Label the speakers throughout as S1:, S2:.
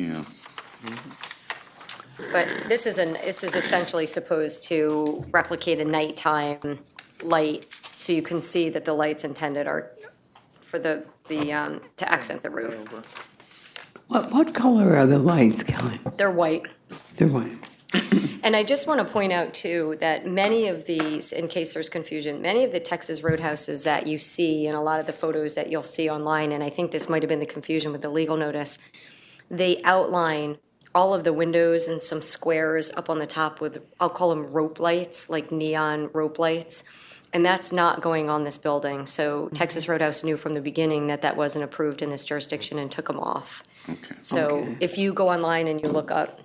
S1: Yeah.
S2: But this is an, this is essentially supposed to replicate a nighttime light, so you can see that the lights intended are for the, the, um, to accent the roof.
S3: What, what color are the lights, Kelly?
S2: They're white.
S3: They're white.
S2: And I just want to point out too, that many of these, in case there's confusion, many of the Texas roadhouses that you see and a lot of the photos that you'll see online, and I think this might have been the confusion with the legal notice, they outline all of the windows and some squares up on the top with, I'll call them rope lights, like neon rope lights. And that's not going on this building.
S3: Mm-hmm.
S2: So Texas Roadhouse knew from the beginning that that wasn't approved in this jurisdiction and took them off.
S1: Okay.
S2: So if you go online and you look up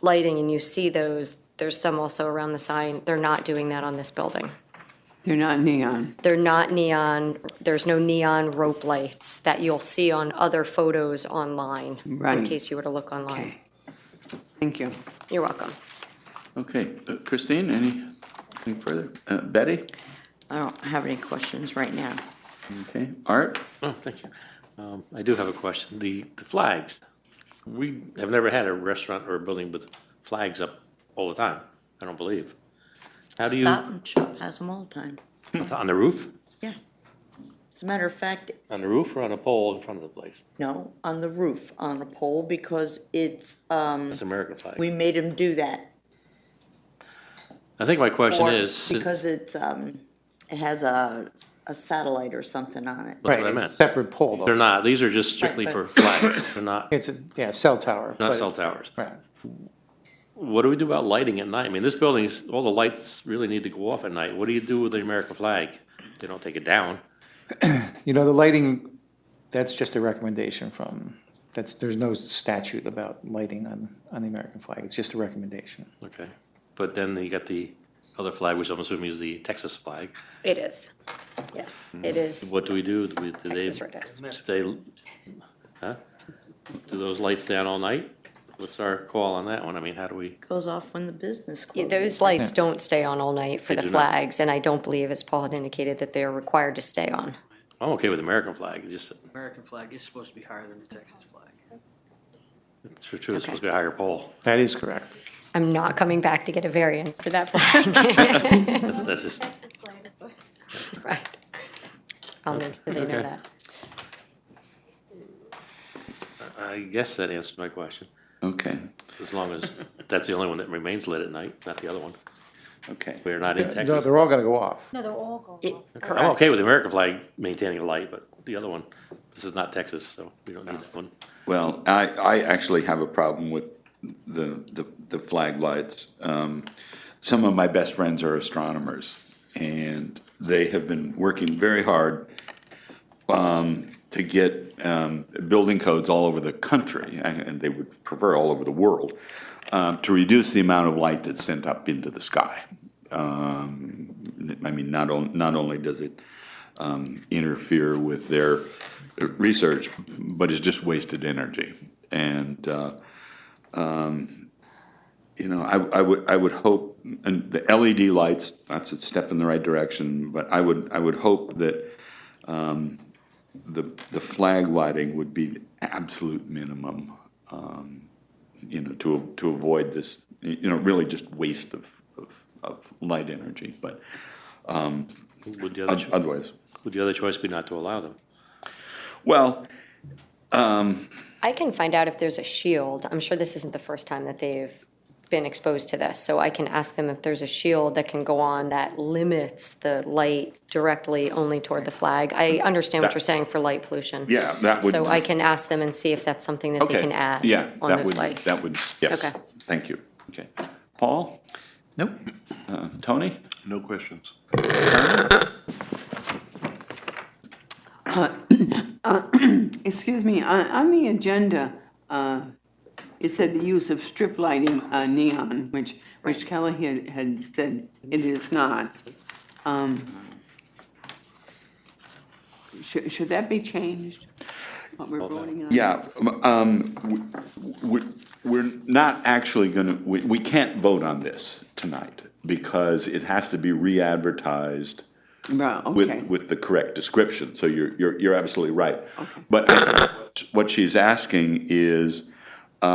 S2: lighting and you see those, there's some also around the sign. They're not doing that on this building.
S3: They're not neon.
S2: They're not neon, there's no neon rope lights that you'll see on other photos online, in
S3: Right.
S2: case you were to look online.
S3: Okay. Thank you.
S2: You're welcome.
S1: Okay, Uh, Christine, anything further? Uh, Betty?
S4: I don't have any questions right now.
S1: Okay, Art?
S5: Oh, thank you. Um, I do have a question. The, the flags, we have never had a restaurant or a building with flags up all the time, I don't believe. How do you,
S4: Stop and Shop has them all the time.
S5: on the roof?
S4: Yeah. As a matter of fact,
S5: On the roof or on a pole in front of the place?
S4: no, on the roof, on a pole, because it's, um,
S5: That's American flag.
S4: we made them do that.
S5: I think my question
S4: Or
S5: is, since-
S4: Because it's, um, it has a, a satellite or something on it.
S5: that's what I
S6: Right,
S5: meant.
S6: it's a separate pole, though.
S5: They're not, these are just strictly
S4: Right,
S5: for
S4: right.
S5: flags. They're not,
S6: It's, a yeah, cell tower.
S5: not
S6: but-
S5: cell towers.
S6: Right.
S5: What do we do about lighting at night? I mean, this building is, all the lights really need to go off at night. What do you do with the American flag? They don't take it down.
S6: You know, the lighting, that's just a recommendation from, that's, there's no statute about lighting on, on the American flag. It's just a recommendation.
S5: Okay, but then you got the other flag, which I'm assuming is the Texas flag.
S2: It is. Yes, it
S5: Mm.
S2: is
S5: What do we do? Do we- do they,
S2: Texas
S5: do
S2: Roadhouse.
S5: they, huh? Do those lights down all night? What's our call on that one? I mean, how do we,
S4: Goes off when the business
S2: Yeah,
S4: closes.
S2: Those lights don't stay on all night for
S5: They
S2: the
S5: do not.
S2: flags, and I don't believe, as Paul had indicated, that they are required to stay on.
S5: I'm okay with American flag, it's just,
S7: American flag is supposed to be higher than the Texas flag.
S5: it's for true, it's supposed to be a higher pole.
S6: That is correct.
S2: I'm not coming back to get a variance for that flag.
S5: That's, that's just,
S2: Right. I'll make sure they know
S5: Okay.
S2: that.
S5: I guess that answers my question,
S1: Okay,
S5: as long as that's the only one that remains lit at night, not the other one.
S1: okay.
S5: We're not in
S6: No,
S5: Texas.
S6: they're all gonna go off.
S8: No, they're all gone.
S2: It-
S5: I'm
S2: Correct.
S5: okay with the American flag maintaining a light, but the other one, this is not Texas, so we don't need that one.
S1: Well, I, I actually have a problem with the, the, the flag lights. Um, some of my best friends are astronomers, and they have been working very hard um, to get um, building codes all over the country, and and they would prefer all over the world, um, to reduce the amount of light that's sent up into the sky. Um, I mean, not, on, not only does it interfere with their research, but it's just wasted energy. And, uh, um, you know, I, I would, I would hope, and the LED lights, that's a step in the right direction, but I would, I would hope that, um, the, the flag lighting would be the absolute minimum, um, you know, to, to avoid this, you know, really just waste of, of, of light energy, but
S5: Would the other
S1: oth- otherwise.
S5: Would the other choice be not to allow them?
S1: Well,
S2: I can find out if there's a shield. I'm sure this isn't the first time that they've been exposed to this, so I can ask them if there's a shield that can go on that limits the light directly only toward the flag. I understand what
S1: That-
S2: you're saying for light pollution.
S1: Yeah, that would.
S2: So I can ask them and see if that's something that they
S1: Okay,
S2: can add
S1: yeah,
S2: on
S1: that
S2: those
S1: would-
S2: lights.
S1: That would, yes,
S2: Okay.
S1: thank you. Okay. Paul,
S6: Nope.
S1: uh, Tony?
S9: No questions.
S10: Excuse me, on, on the agenda, uh, it said the use of strip lighting, uh, neon, which, which Kelly had, had said it is not. Um, Should, should that be changed? What we're voting on?
S1: Yeah, um, um, w- w- we're not actually going to, we we can't vote on this tonight because it has to be re-advertised
S10: Right, okay.
S1: with, with the correct description. So you're, you're, you're absolutely right. But I- what she's asking is